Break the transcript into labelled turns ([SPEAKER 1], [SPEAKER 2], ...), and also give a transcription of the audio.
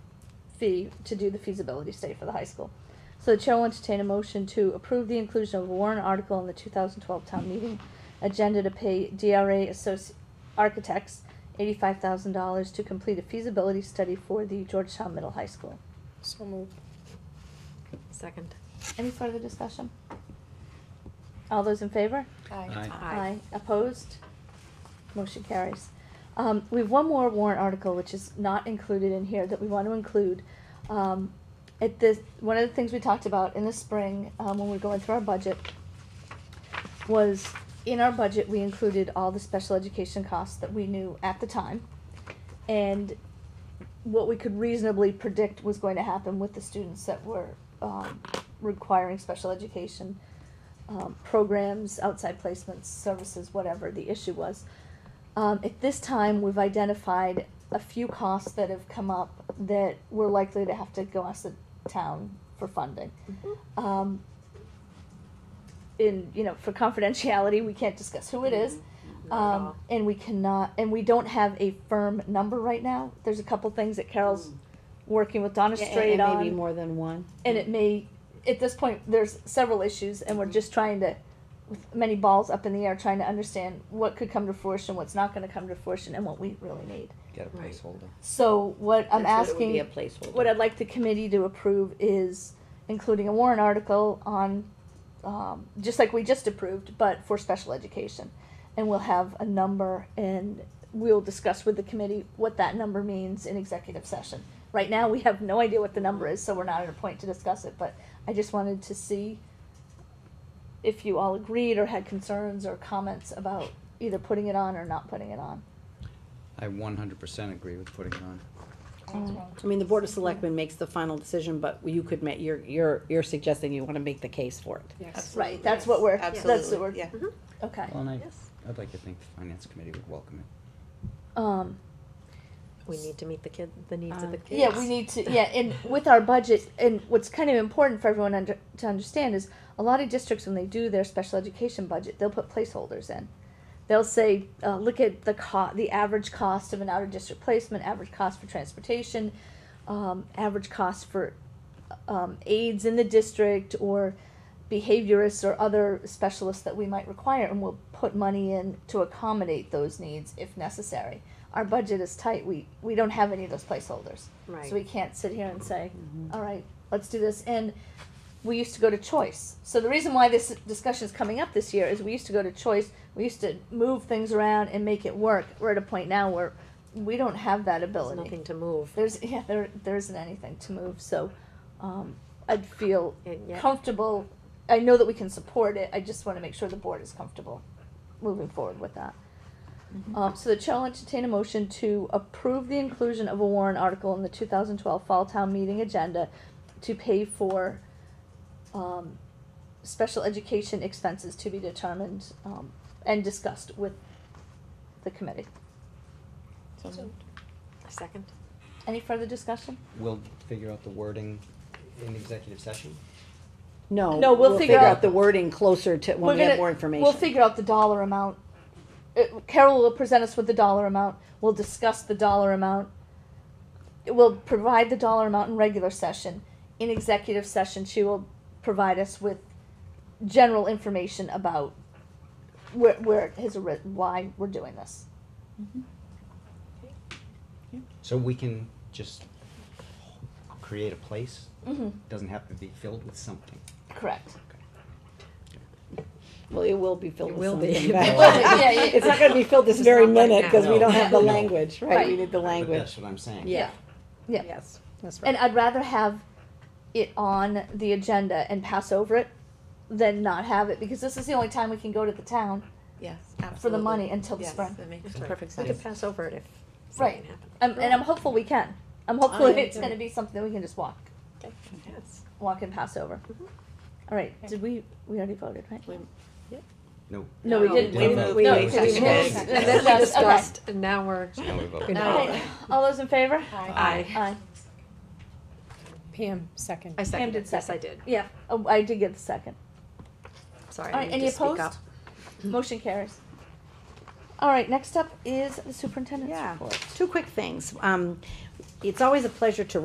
[SPEAKER 1] fee to do the feasibility study for the high school. So the chair will entertain a motion to approve the inclusion of a warrant article in the two thousand twelve town meeting agenda to pay DRA Associ- Architects eighty-five thousand dollars to complete a feasibility study for the Georgetown Middle High School.
[SPEAKER 2] So moved. Second.
[SPEAKER 1] Any further discussion? All those in favor?
[SPEAKER 2] Aye.
[SPEAKER 1] Aye. Opposed? Motion carries. Um, we have one more warrant article, which is not included in here, that we want to include. Um, at this, one of the things we talked about in the spring, um, when we were going through our budget, was in our budget, we included all the special education costs that we knew at the time. And what we could reasonably predict was going to happen with the students that were, um, requiring special education um, programs, outside placements, services, whatever the issue was. Um, at this time, we've identified a few costs that have come up that we're likely to have to go ask the town for funding.
[SPEAKER 2] Mm-hmm.
[SPEAKER 1] Um, in, you know, for confidentiality, we can't discuss who it is.
[SPEAKER 2] Mm-hmm. Not at
[SPEAKER 1] Um,
[SPEAKER 2] all.
[SPEAKER 1] and we cannot, and we don't have a firm number right now. There's a couple things that Carol's
[SPEAKER 2] Mm.
[SPEAKER 1] working with Donna
[SPEAKER 3] Yeah, and-
[SPEAKER 1] Straight
[SPEAKER 3] and
[SPEAKER 1] on
[SPEAKER 3] Maybe more than one.
[SPEAKER 1] and it may at this point there's several issues and we're just trying to with many balls up in the air trying to understand what could come to fruition what's not going to come to fruition and what we really need
[SPEAKER 4] Got a
[SPEAKER 2] Right.
[SPEAKER 4] placeholder.
[SPEAKER 1] so what i'm
[SPEAKER 3] That's what
[SPEAKER 1] asking
[SPEAKER 3] It would be a placeholder.
[SPEAKER 1] what i'd like the committee to approve is including a warrant article on um, just like we just approved but for special education and we'll have a number and we'll discuss with the committee what that number means in executive session right now we have no idea what the number is so we're not at a point to discuss it but i just wanted to see if you all agreed or had concerns or comments about either putting it on or not putting it on
[SPEAKER 4] I one hundred percent agree with putting it on.
[SPEAKER 3] I mean, the Board of Selectmen makes the final decision, but you could make, you're, you're, you're suggesting you wanna make the case for it.
[SPEAKER 2] Yes.
[SPEAKER 1] right that's what we're that's what we're
[SPEAKER 5] Absolutely, yeah.
[SPEAKER 1] okay
[SPEAKER 4] Well, and I,
[SPEAKER 2] Yes.
[SPEAKER 4] I'd like to think the finance committee would welcome it.
[SPEAKER 1] um
[SPEAKER 2] We need to meet the kid, the needs of the
[SPEAKER 3] Um,
[SPEAKER 2] kids.
[SPEAKER 1] Yeah, we need to, yeah, and with our budget, and what's kind of important for everyone under, to understand is a lot of districts, when they do their special education budget, they'll put placeholders in. They'll say, uh, look at the co- the average cost of an outer district placement, average cost for transportation, um, average cost for, um, aides in the district or behaviorists or other specialists that we might require, and we'll put money in to accommodate those needs if necessary. Our budget is tight, we, we don't have any of those placeholders. So we
[SPEAKER 2] Right. Mm-hmm.
[SPEAKER 1] can't sit here and say, all right, let's do this. And we used to go to choice. So the reason why this discussion is coming up this year is we used to go to choice. We used to move things around and make it work. We're at a point now where we don't have that
[SPEAKER 2] There's
[SPEAKER 1] ability.
[SPEAKER 2] nothing to move.
[SPEAKER 1] There's yeah, there there isn't anything to move. So um, I'd feel
[SPEAKER 2] And yet-
[SPEAKER 1] comfortable. I know that we can support it. I just want to make sure the board is comfortable moving forward with that.
[SPEAKER 5] Mm-hmm.
[SPEAKER 1] Um, so the chair will entertain a motion to approve the inclusion of a warrant article in the two thousand twelve fall town meeting agenda to pay for, um, special education expenses to be determined, um, and discussed with the committee.
[SPEAKER 2] Second.
[SPEAKER 1] Any further discussion?
[SPEAKER 4] We'll figure out the wording in executive session.
[SPEAKER 3] No.
[SPEAKER 1] No, we'll figure out-
[SPEAKER 3] The wording closer to,
[SPEAKER 1] We're
[SPEAKER 3] when we have
[SPEAKER 1] gonna-
[SPEAKER 3] more information.
[SPEAKER 1] We'll figure out the dollar amount. Uh, Carol will present us with the dollar amount. We'll discuss the dollar amount. We'll provide the dollar amount in regular session. In executive session, she will provide us with general information about where, where it has arisen, why we're doing this.
[SPEAKER 4] So we can just create a place,
[SPEAKER 1] Mm-hmm.
[SPEAKER 4] doesn't have to be filled with something.
[SPEAKER 1] Correct.
[SPEAKER 3] Well, it will be filled
[SPEAKER 2] It
[SPEAKER 3] with
[SPEAKER 2] will be.
[SPEAKER 3] something.
[SPEAKER 2] It
[SPEAKER 3] but-
[SPEAKER 4] will be,
[SPEAKER 1] yeah, yeah.
[SPEAKER 3] It's not gonna be filled this
[SPEAKER 2] It's
[SPEAKER 3] very
[SPEAKER 2] not right
[SPEAKER 3] minute, cause
[SPEAKER 4] now.
[SPEAKER 3] we don't have the
[SPEAKER 4] No.
[SPEAKER 3] language, right? We
[SPEAKER 1] Right.
[SPEAKER 3] need the
[SPEAKER 4] But
[SPEAKER 3] language.
[SPEAKER 4] That's what I'm saying.
[SPEAKER 3] Yeah.
[SPEAKER 1] Yeah.
[SPEAKER 3] Yes, that's
[SPEAKER 1] And
[SPEAKER 3] right.
[SPEAKER 1] I'd rather have it on the agenda and pass over it than not have it because this is the only time we can go to the town
[SPEAKER 5] Yes,
[SPEAKER 1] for the
[SPEAKER 5] absolutely.
[SPEAKER 1] money until the
[SPEAKER 5] Yes,
[SPEAKER 1] spring.
[SPEAKER 5] that makes
[SPEAKER 2] That's
[SPEAKER 5] sense.
[SPEAKER 2] right. We could pass over it if
[SPEAKER 1] Right.
[SPEAKER 2] something
[SPEAKER 1] i
[SPEAKER 2] happened.
[SPEAKER 1] and I'm hopeful we can. I'm hopeful
[SPEAKER 3] Alright.
[SPEAKER 1] it's gonna be something we can just walk,
[SPEAKER 2] Okay. Yes.
[SPEAKER 1] walk and pass over. All right, did we, we already voted, right?
[SPEAKER 4] No.
[SPEAKER 1] No, we
[SPEAKER 5] No,
[SPEAKER 1] didn't.
[SPEAKER 4] we
[SPEAKER 1] No,
[SPEAKER 4] moved.
[SPEAKER 1] we
[SPEAKER 4] We
[SPEAKER 1] moved.
[SPEAKER 4] moved.
[SPEAKER 1] We
[SPEAKER 4] Yes.
[SPEAKER 1] moved.
[SPEAKER 2] And then we
[SPEAKER 1] Okay.
[SPEAKER 2] discussed, and now we're.
[SPEAKER 4] So now we vote.
[SPEAKER 2] Good.
[SPEAKER 1] All right. All those in favor?
[SPEAKER 2] Aye.
[SPEAKER 1] Aye.
[SPEAKER 6] Pam, second.
[SPEAKER 2] I seconded,
[SPEAKER 1] did
[SPEAKER 2] it. yes, I did.
[SPEAKER 1] Yeah, oh, I did get the second.
[SPEAKER 2] Sorry,
[SPEAKER 1] All
[SPEAKER 2] I
[SPEAKER 1] right,
[SPEAKER 2] need
[SPEAKER 1] any
[SPEAKER 2] to speak
[SPEAKER 1] opposed?
[SPEAKER 2] up.
[SPEAKER 1] Motion carries. All right, next up is the superintendent's
[SPEAKER 3] Yeah,
[SPEAKER 1] report.
[SPEAKER 3] two quick things. Um, it's always a pleasure to